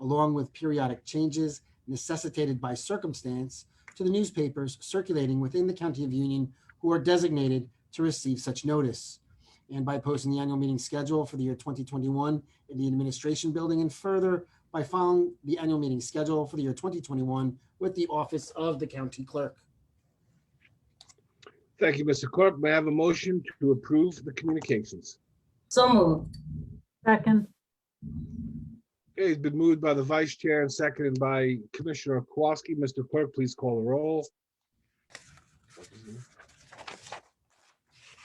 along with periodic changes necessitated by circumstance to the newspapers circulating within the county of Union who are designated to receive such notice. And by posting the annual meeting schedule for the year 2021 in the administration building and further by following the annual meeting schedule for the year 2021 with the office of the county clerk. Thank you, Mr. Corp. May I have a motion to approve the communications? So moved. Second, Okay, it's been moved by the vice chair and seconded by Commissioner Kowalski. Mr. Clerk, please call the roll.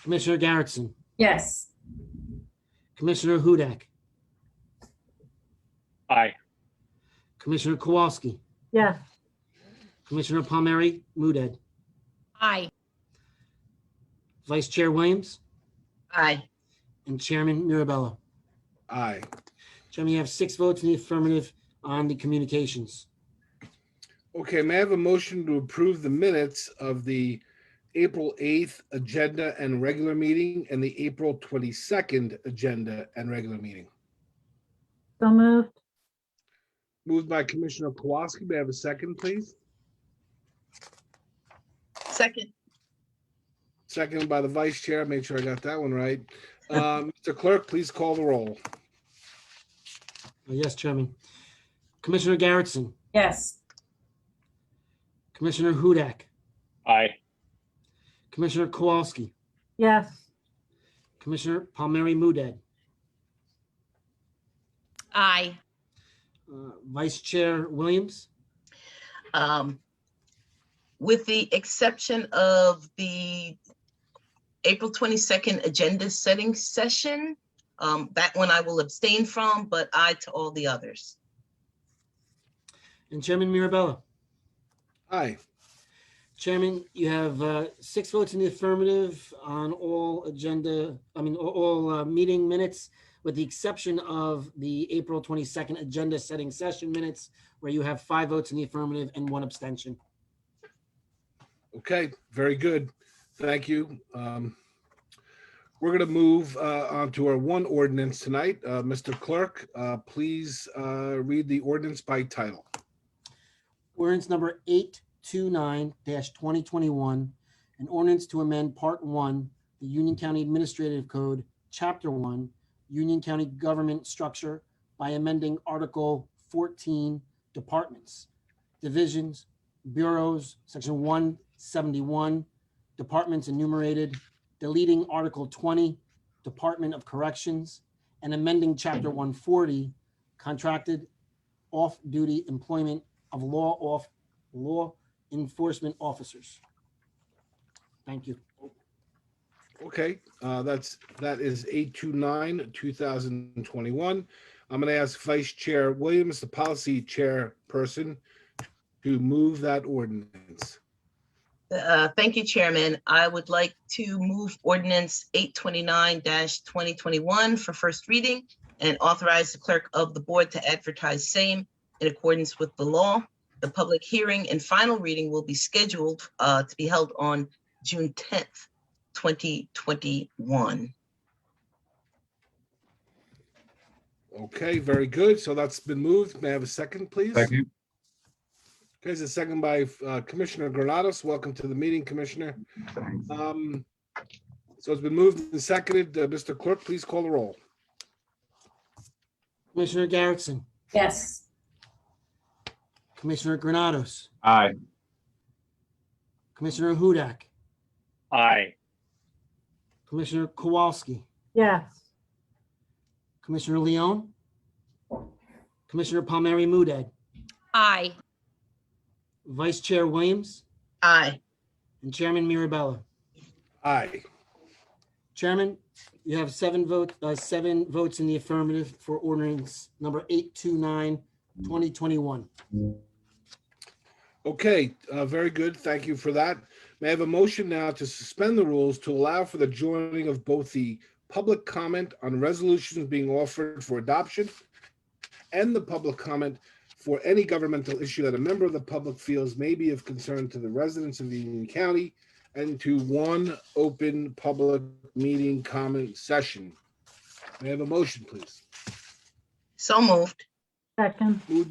Commissioner Garrettson, Yes. Commissioner Hudak, aye, Commissioner Kowalski, yes, Commissioner Palmieri Muedad, Aye. Vice Chair Williams, Aye. and Chairman Mirabella. Aye. Chairman, you have six votes in the affirmative on the communications. Okay, may I have a motion to approve the minutes of the April 8th agenda and regular meeting and the April 22nd agenda and regular meeting? so moved, Moved by Commissioner Kowalski. May I have a second, please? Second. Seconded by the vice chair. Make sure I got that one right. Uh, Mr. Clerk, please call the roll. Uh, Yes, Chairman. Commissioner Garrettson, Yes. Commissioner Hudak, aye, Commissioner Kowalski, yes, Commissioner Palmieri Muedad, Aye. uh, Vice Chair Williams, um, with the exception of the April 22nd agenda setting session. Um, that one I will abstain from, but aye to all the others. and Chairman Mirabella. Aye. Chairman, you have uh, six votes in the affirmative on all agenda, I mean, a- all uh, meeting minutes, with the exception of the April 22nd agenda setting session minutes, where you have five votes in the affirmative and one abstention. Okay, very good. Thank you. Um, We're going to move uh, on to our one ordinance tonight. Uh, Mr. Clerk, uh, please uh, read the ordinance by title. Ordinance number eight two nine twenty twenty-one, an ordinance to amend Part One, the Union County Administrative Code, Chapter One, Union County Government Structure by amending Article fourteen, Departments, Divisions, Bureaus, Section one seventy-one, Departments enumerated, deleting Article twenty, Department of Corrections, and amending Chapter one forty, Contracted Off-Duty Employment of law off, law enforcement officers. Thank you. Okay, uh, that's, that is 829, 2021. I'm going to ask Vice Chair Williams, the policy chairperson, to move that ordinance. Uh, thank you, Chairman. I would like to move ordinance eight twenty-nine twenty twenty-one for first reading and authorize the clerk of the board to advertise same in accordance with the law. The public hearing and final reading will be scheduled uh, to be held on June tenth, twenty twenty-one. Okay, very good. So that's been moved. May I have a second, please? you. Okay, it's a second by uh, Commissioner Granados. Welcome to the meeting, Commissioner. Thanks. Um, So it's been moved and seconded. Uh, Mr. Clerk, please call the roll. Commissioner Garrettson, Yes. Commissioner Granados, Aye, Commissioner Hudak, aye, Commissioner Kowalski, yes, Commissioner Leon, Commissioner Palmieri Muedad, Aye. Vice Chair Williams, Aye. and Chairman Mirabella. Aye. Chairman, you have seven vote, uh, seven votes in the affirmative for ordinance number 829, 2021. Okay, uh, very good. Thank you for that. May I have a motion now to suspend the rules to allow for the joining of both the public comment on resolutions being offered for adoption and the public comment for any governmental issue that a member of the public feels may be of concern to the residents of Union County and to one open public meeting comment session. May I have a motion, please? So moved. second. Moved